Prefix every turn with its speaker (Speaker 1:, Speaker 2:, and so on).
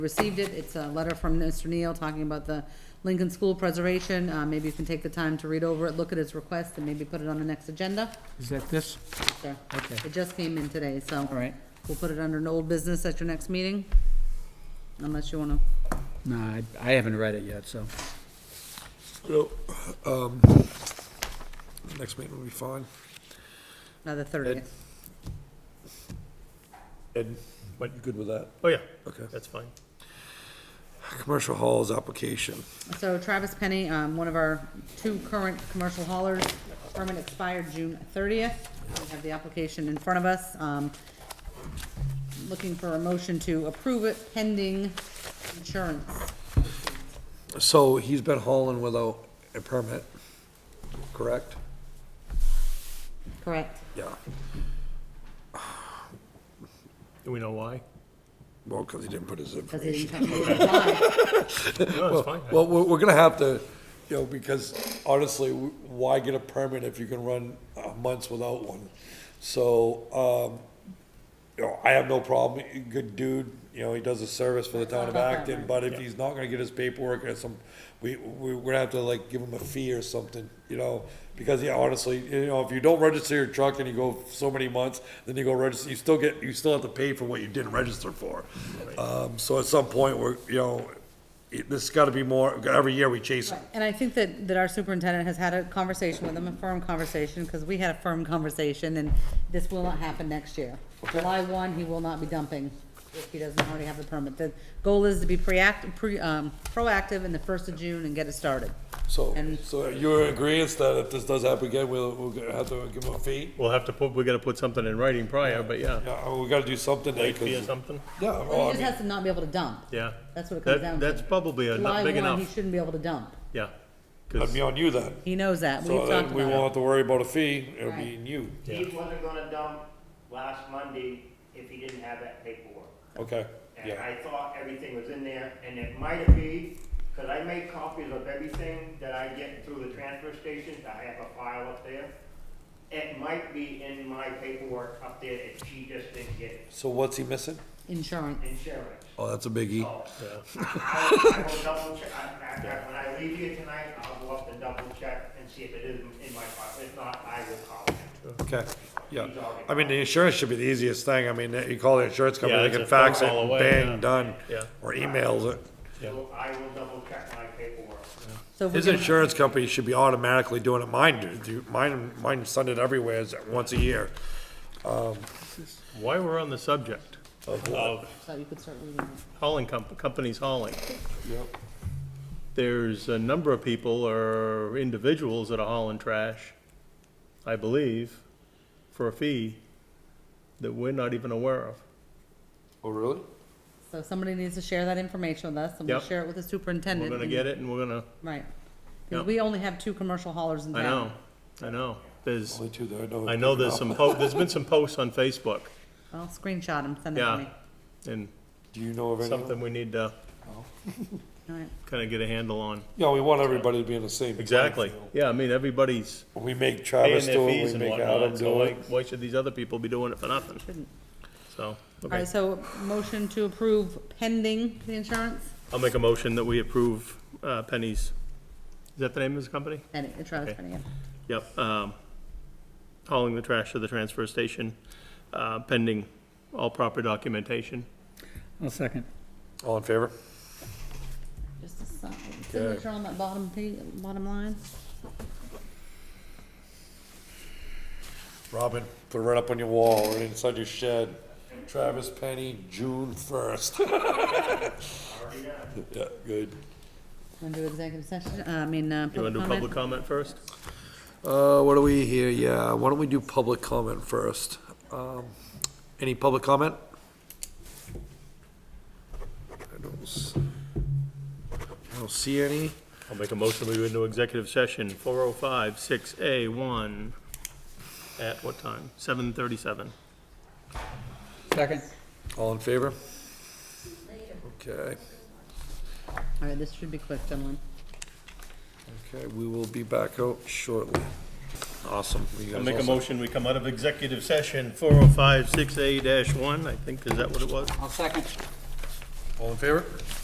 Speaker 1: received it. It's a letter from Mr. Neal talking about the Lincoln School preservation. Uh, maybe you can take the time to read over it, look at his request, and maybe put it on the next agenda.
Speaker 2: Is that this?
Speaker 1: Sure.
Speaker 2: Okay.
Speaker 1: It just came in today, so
Speaker 2: All right.
Speaker 1: we'll put it under an old business at your next meeting. Unless you wanna,
Speaker 2: No, I, I haven't read it yet, so.
Speaker 3: So, um, next meeting will be fine.
Speaker 1: another thirtieth.
Speaker 4: Ed,
Speaker 3: But you good with that?
Speaker 4: oh yeah,
Speaker 3: Okay.
Speaker 4: that's fine.
Speaker 3: Commercial halls application.
Speaker 1: So Travis Penny, um, one of our two current commercial haulers, permit expired June thirtieth. We have the application in front of us. Um, looking for a motion to approve it pending insurance.
Speaker 3: So he's been hauling without a permit, correct?
Speaker 1: Correct.
Speaker 3: Yeah,
Speaker 4: Do we know why?
Speaker 3: well, because he didn't put his
Speaker 1: Because he
Speaker 3: information.
Speaker 1: didn't come to apply.
Speaker 4: No, it's fine.
Speaker 3: Well, we're, we're gonna have to, you know, because honestly, w- why get a permit if you can run uh, months without one? So, um, you know, I have no problem, good dude, you know, he does a service for the town of Acton, but if he's not gonna get his paperwork or some, we, we, we're gonna have to like give him a fee or something, you know? Because, yeah, honestly, you know, if you don't register your truck and you go so many months, then you go register, you still get, you still have to pay for what you didn't register for. Um, so at some point, we're, you know, it, this has gotta be more, every year we chase it.
Speaker 1: And I think that, that our superintendent has had a conversation with him, a firm conversation, because we had a firm conversation, and this will not happen next year. July one, he will not be dumping if he doesn't already have the permit. The goal is to be preact, pre, um, proactive in the first of June and get it started.
Speaker 4: Oh,
Speaker 3: So,
Speaker 1: And-
Speaker 3: so you're in agreeance that if this does happen again, we'll, we'll have to give him a fee?
Speaker 4: We'll have to put, we gotta put something in writing prior, but yeah.
Speaker 3: Yeah, we gotta do something.
Speaker 4: Late fee or something,
Speaker 3: Yeah,
Speaker 1: He
Speaker 3: well, I
Speaker 1: just
Speaker 3: mean-
Speaker 1: has to not be able to dump.
Speaker 4: yeah.
Speaker 1: That's what it comes down
Speaker 4: That,
Speaker 1: to.
Speaker 4: that's probably a not
Speaker 1: July
Speaker 4: big
Speaker 1: one, he
Speaker 4: enough,
Speaker 1: shouldn't be able to dump.
Speaker 4: yeah.
Speaker 3: That'd
Speaker 4: Cause,
Speaker 3: be on you then.
Speaker 1: He knows that. We've
Speaker 3: So
Speaker 1: talked
Speaker 3: then we won't
Speaker 1: about
Speaker 3: have
Speaker 1: it.
Speaker 3: to worry about a fee, it'll be
Speaker 1: Right.
Speaker 3: in you.
Speaker 5: He wasn't gonna dump last Monday if he didn't have that paperwork.
Speaker 3: Okay,
Speaker 5: And
Speaker 3: yeah.
Speaker 5: I thought everything was in there, and it might have been, cause I make copies of everything that I get through the transfer stations, I have a file up there. It might be in my paperwork up there if she just didn't get it,
Speaker 3: So what's he missing?
Speaker 1: Insurance.
Speaker 5: insurance.
Speaker 3: Oh, that's a biggie.
Speaker 5: So, I I will double check, I- I- I- when I leave here tonight, I'll go up and double check and see if it is in my file, if not, I will call him.
Speaker 3: Okay, yeah. I mean, the insurance should be the easiest thing. I mean, you call the insurance company,
Speaker 4: Yeah,
Speaker 3: they
Speaker 4: it's
Speaker 3: can
Speaker 4: a phone
Speaker 3: fax it,
Speaker 4: call away, yeah.
Speaker 3: bang, done.
Speaker 4: Yeah.
Speaker 3: Or emails it.
Speaker 5: So I will double check my paperwork.
Speaker 1: So if we
Speaker 3: His
Speaker 1: can-
Speaker 3: insurance company should be automatically doing it. Mine, do- do- mine, mine send it everywhere is once a year.
Speaker 4: why we're on the subject
Speaker 3: Uh,
Speaker 4: of
Speaker 1: So you could start reading it.
Speaker 4: hauling comp, companies hauling. There's a number of people or individuals that are hauling trash, I believe, for a fee that we're not even aware of.
Speaker 3: Oh, really?
Speaker 1: So somebody needs to share that information with us, and we'll
Speaker 4: Yep.
Speaker 1: share it with the
Speaker 4: We're
Speaker 1: superintendent.
Speaker 4: gonna
Speaker 1: and-
Speaker 4: get it and we're gonna,
Speaker 1: Right. 'Cause
Speaker 4: Yep.
Speaker 1: we only have two commercial haulers in
Speaker 4: I
Speaker 1: town.
Speaker 4: know, I know. There's,
Speaker 3: Only two that I know.
Speaker 4: I know there's some, po- there's been some posts on Facebook,
Speaker 1: I'll screenshot them, send them to
Speaker 4: yeah.
Speaker 1: me.
Speaker 4: And
Speaker 3: Do you know of anyone?
Speaker 4: something we need to
Speaker 1: All right.
Speaker 4: kind of get a handle on.
Speaker 3: Yeah, we want everybody to be in the same. playing
Speaker 4: Exactly,
Speaker 3: field.
Speaker 4: yeah, I mean, everybody's
Speaker 3: We make
Speaker 4: paying
Speaker 3: Travis
Speaker 4: their
Speaker 3: do
Speaker 4: fees
Speaker 3: it, we
Speaker 4: and
Speaker 3: make Adam
Speaker 4: whatnot, so
Speaker 3: do
Speaker 4: why,
Speaker 3: it.
Speaker 4: why should these other people be doing it for nothing?
Speaker 1: Shouldn't.
Speaker 4: So,
Speaker 1: All
Speaker 4: okay.
Speaker 1: right, so motion to approve pending the insurance,
Speaker 4: I'll make a motion that we approve uh, Penny's, is that the name of the company?
Speaker 1: and it- Travis
Speaker 4: Okay.
Speaker 1: Penny, yeah.
Speaker 4: Yep, um, hauling the trash to the transfer station, uh, pending all proper documentation.
Speaker 2: I'll second.
Speaker 3: All in favor?
Speaker 1: Just a sign- signature on that bottom pa, bottom line.
Speaker 3: Robin, put it right up on your wall, right inside your shed. Travis Penny, June first. Yeah, good.
Speaker 1: Want to do executive session, uh, I mean, uh,
Speaker 4: You
Speaker 1: public
Speaker 4: want to do public
Speaker 1: comment?
Speaker 4: comment first?
Speaker 3: Uh, what do we here? Yeah, why don't we do public comment first? Um, any public comment? I don't, s- I don't see any.
Speaker 4: I'll make a motion, we go into executive session, four oh five, six A, one, at what time? Seven thirty-seven.
Speaker 2: Second.
Speaker 3: All in favor? Okay,
Speaker 1: All right, this should be quick, gentlemen.
Speaker 3: okay, we will be back out shortly. Awesome. You guys
Speaker 4: I'll make a
Speaker 3: all set?
Speaker 4: motion, we come out of executive session, four oh five, six A dash one, I think, is that what it was?
Speaker 2: I'll second.
Speaker 6: All in favor?